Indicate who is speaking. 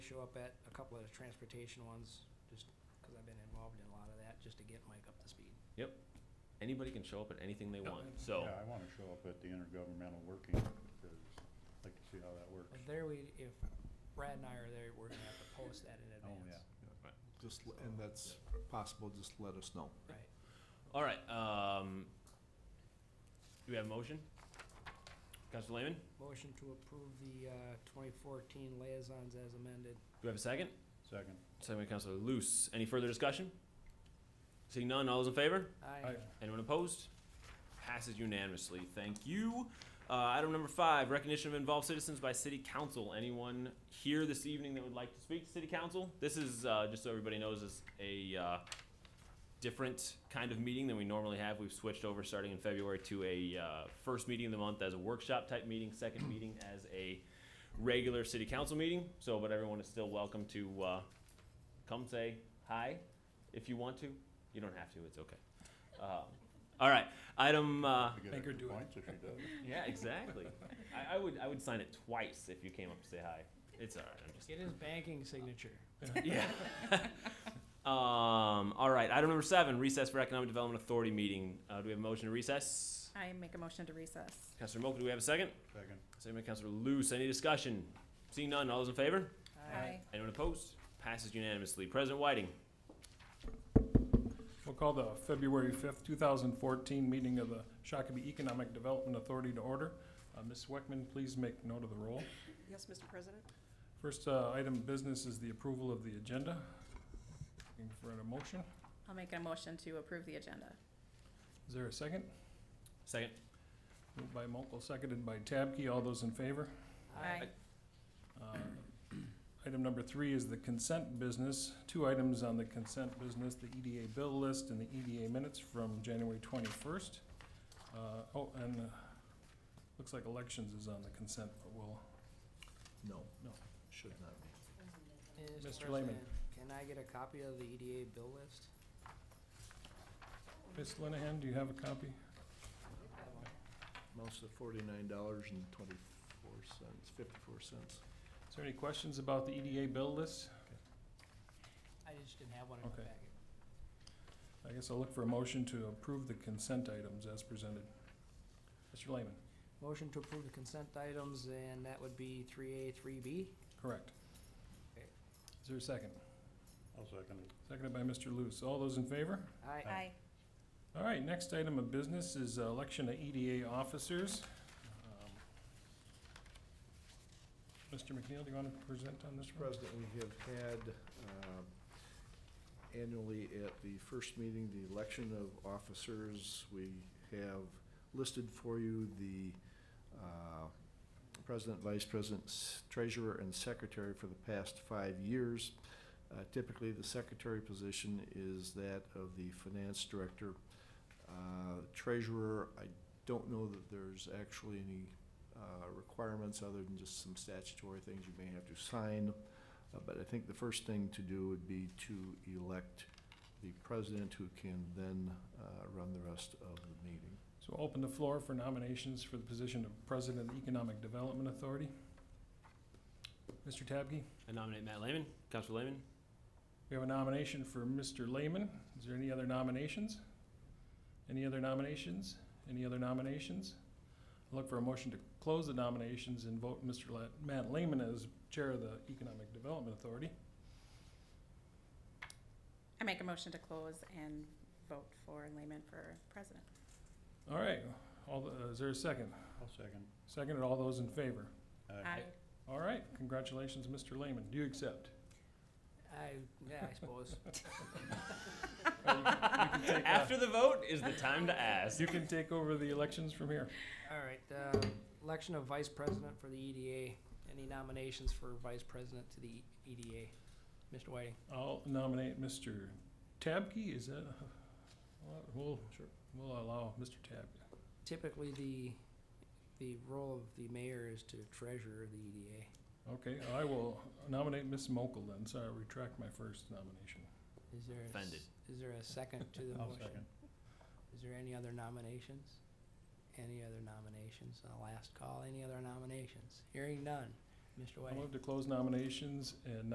Speaker 1: show up at a couple of the transportation ones, just because I've been involved in a lot of that, just to get Mike up to speed.
Speaker 2: Anybody can show up at anything they want, so.
Speaker 3: Yeah, I wanna show up at the intergovernmental working, because I'd like to see how that works.
Speaker 1: But there we, if Brad and I are there, we're gonna have to post that in
Speaker 3: Oh,
Speaker 1: advance.
Speaker 3: yeah.
Speaker 4: Just, l- and that's possible, just let us know.
Speaker 1: Right.
Speaker 2: All right, um, do we have a motion? Counselor Lehman, do
Speaker 1: Motion to approve the uh, 2014 liaisons as amended.
Speaker 2: we have a second?
Speaker 3: Second.
Speaker 2: Second by Counselor Loose. Any further discussion? Seeing none, all those in favor?
Speaker 1: Aye.
Speaker 2: Anyone opposed? Passes unanimously. Thank you. Uh, item number five, recognition of involved citizens by city council. Anyone here this evening that would like to speak to city council? This is, uh, just so everybody knows, is a, uh, different kind of meeting than we normally have. We've switched over starting in February to a, uh, first meeting of the month as a workshop type meeting, second meeting as a regular city council meeting. So, but everyone is still welcome to, uh, come say hi if you want to. You don't have to, it's okay. Um, all right, item, uh,
Speaker 3: We get
Speaker 5: Make her
Speaker 3: extra
Speaker 5: do it.
Speaker 3: Points if she does.
Speaker 2: yeah, exactly. I, I would, I would sign it twice if you came up to say hi. It's all right, I'm just
Speaker 1: Get his banking signature.
Speaker 2: yeah. um, all right, item number seven, recess for Economic Development Authority meeting. Uh, do we have a motion to recess?
Speaker 6: I make a motion to recess.
Speaker 2: Councilor Moak, do we have a second?
Speaker 3: Second.
Speaker 2: Second by Councilor Loose. Any discussion? Seeing none, all those in favor?
Speaker 6: Aye.
Speaker 2: Anyone opposed? Passes unanimously. President Whiting.
Speaker 5: We'll call the February fifth, two thousand fourteen meeting of the Shakopee Economic Development Authority to order. Uh, Ms. Weckman, please make note of the roll.
Speaker 6: Yes, Mr. President?
Speaker 5: First, uh, item of business is the approval of the agenda. Looking for a motion.
Speaker 6: I'll make a motion to approve the agenda.
Speaker 5: Is there a second?
Speaker 2: Second.
Speaker 5: Moved by Mokel, seconded by Tabke. All those in favor?
Speaker 6: Aye.
Speaker 5: Uh, Item number three is the consent business. Two items on the consent business, the EDA bill list and the EDA minutes from January twenty-first. Oh, and uh, looks like elections is on the consent, but we'll,
Speaker 4: No.
Speaker 5: No.
Speaker 4: Should not be.
Speaker 5: Mr. Lehman.
Speaker 1: President, Can I get a copy of the EDA bill list?
Speaker 5: Ms. Linehan, do you have a copy?
Speaker 4: Amounts to forty-nine dollars and twenty-four cents, fifty-four cents.
Speaker 5: Is there any questions about the EDA bill list?
Speaker 1: I just didn't have one in my
Speaker 5: Okay.
Speaker 1: packet.
Speaker 5: I guess I'll look for a motion to approve the consent items as presented. Mr. Lehman,
Speaker 1: Motion to approve the consent items, and that would be three A, three B.
Speaker 5: correct.
Speaker 1: Okay.
Speaker 5: Is there a second?
Speaker 3: I'll second it.
Speaker 5: Seconded by Mr. Luce. All those in favor?
Speaker 1: Aye.
Speaker 6: Aye.
Speaker 5: All right, next item of business is uh, election of EDA officers. Um, Mr. McNeil, do you want to present on this
Speaker 4: Mr.
Speaker 5: one?
Speaker 4: President, we have had um, annually at the first meeting, the election of officers. We have listed for you the uh, president, vice president, s- treasurer, and secretary for the past five years. Uh, Typically, the secretary position is that of the finance director. Uh, Treasurer, I don't know that there's actually any uh, requirements other than just some statutory things you may have to sign. Uh, But I think the first thing to do would be to elect the president who can then uh, run the rest of the meeting.
Speaker 5: So I'll open the floor for nominations for the position of President of the Economic Development Authority. Mr. Tabke,
Speaker 2: I nominate Matt Lehman. Counselor Lehman.
Speaker 5: we have a nomination for Mr. Lehman. Is there any other nominations? Any other nominations? Any other nominations? I'll Look for a motion to close the nominations and vote Mr. La- Matt Lehman as Chair of the Economic Development Authority.
Speaker 6: I make a motion to close and vote for Lehman for president.
Speaker 5: All right, all, the- uh, is there a second?
Speaker 3: I'll second.
Speaker 5: Second, and all those in favor?
Speaker 6: Aye.
Speaker 5: All right, congratulations, Mr. Lehman, do you accept?
Speaker 1: I, yeah, I suppose.
Speaker 5: take, uh,
Speaker 2: After the vote is the time to ask.
Speaker 5: You can take over the elections from here.
Speaker 1: All right, uh, election of vice president for the EDA. Any nominations for vice president to the E EDA? Mr. Whiting?
Speaker 5: I'll nominate Mr. Tabke, is that, well, we'll, we'll allow Mr. Tabke.
Speaker 1: Typically, the, the role of the mayor is to treasurer the E EDA.
Speaker 5: Okay, I will nominate Ms. Mokel then, so I retract my first nomination.
Speaker 1: Is there, a s-
Speaker 2: Offended.
Speaker 1: is there a second to the
Speaker 3: I'll
Speaker 1: motion?
Speaker 3: second.
Speaker 1: Is there any other nominations? Any other nominations? A last call, any other nominations? Hearing none. Mr.
Speaker 5: I'll
Speaker 1: Whiting?
Speaker 5: move to close nominations and